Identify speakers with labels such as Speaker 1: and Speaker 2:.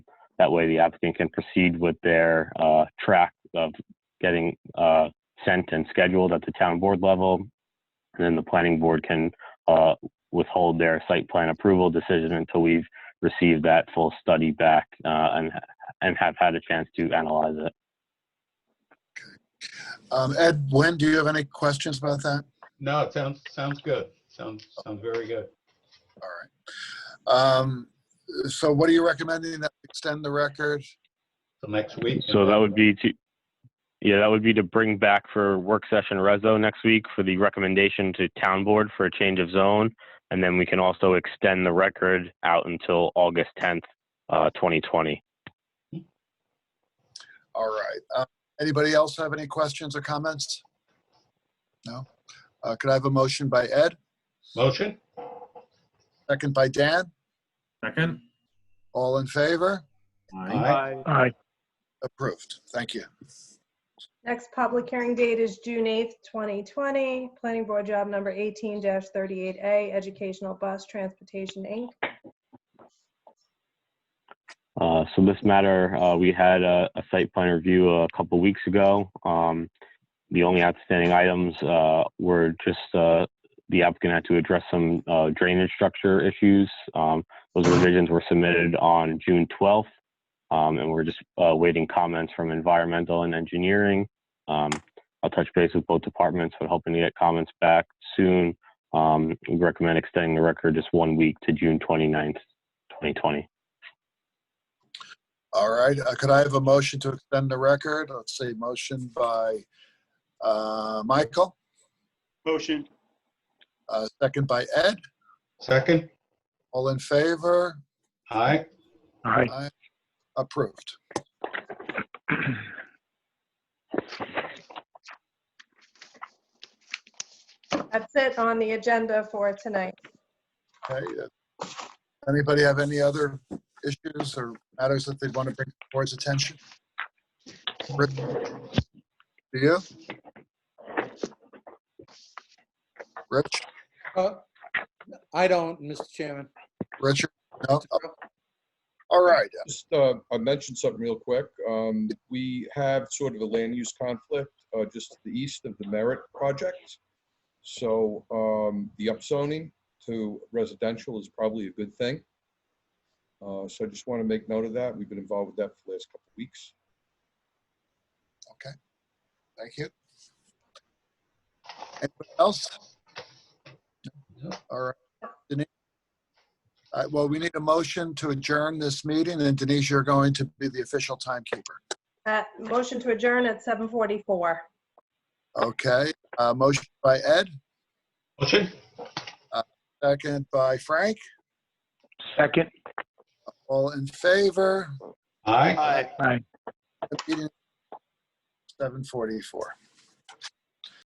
Speaker 1: That way, the applicant can proceed with their uh, track of getting uh, sent and scheduled at the town board level. And then the planning board can uh, withhold their site plan approval decision until we've received that full study back uh, and and have had a chance to analyze it.
Speaker 2: Um, Ed, Lynn, do you have any questions about that?
Speaker 3: No, it sounds, sounds good. Sounds, sounds very good.
Speaker 2: All right. Um, so what are you recommending that we extend the record?
Speaker 3: Till next week.
Speaker 1: So that would be to, yeah, that would be to bring back for work session reso next week for the recommendation to town board for a change of zone. And then we can also extend the record out until August 10th, uh, 2020.
Speaker 2: All right. Uh, anybody else have any questions or comments? No. Uh, could I have a motion by Ed?
Speaker 3: Motion?
Speaker 2: Second by Dan?
Speaker 4: Second?
Speaker 2: All in favor?
Speaker 4: Aye.
Speaker 3: Aye.
Speaker 2: Approved. Thank you.
Speaker 5: Next public hearing date is June 8th, 2020. Planning Board Job Number 18-38A, Educational Bus Transportation, Inc.
Speaker 1: Uh, so this matter, uh, we had a, a site plan review a couple weeks ago. Um, the only outstanding items, uh, were just, uh, the applicant had to address some, uh, drainage structure issues. Um, those revisions were submitted on June twelfth. Um, and we're just, uh, waiting comments from environmental and engineering. Um, I'll touch base with both departments, but hoping to get comments back soon. Um, we recommend extending the record just one week to June 29th, twenty.
Speaker 2: All right. Uh, could I have a motion to extend the record? Let's see, motion by uh, Michael,
Speaker 6: Motion,
Speaker 2: uh, second by Ed.
Speaker 3: Second?
Speaker 2: All in favor?
Speaker 3: Aye.
Speaker 2: Approved.
Speaker 5: That's it on the agenda for tonight.
Speaker 2: Okay. uh, Anybody have any other issues or matters that they'd want to bring to the board's attention? Rick, Do you? Rich,
Speaker 7: Uh, I don't, Mr. Chairman.
Speaker 2: Richard? No? Oh. All right.
Speaker 8: Just, uh, I mentioned something real quick. Um, we have sort of a land use conflict, uh, just to the east of the Merritt project. So, um, the upzoning to residential is probably a good thing. Uh, so I just want to make note of that. We've been involved with that for the last couple of weeks.
Speaker 2: Thank you. Anyone else? All right. Denise? All right, Well, we need a motion to adjourn this meeting, and Denise, you're going to be the official timekeeper.
Speaker 5: Uh, Motion to adjourn at 7:44.
Speaker 2: Okay, uh, motion by Ed,
Speaker 3: Motion?
Speaker 2: second by Frank.
Speaker 4: Second?
Speaker 2: All in favor?
Speaker 3: Aye.
Speaker 6: aye.
Speaker 2: Seven forty-four.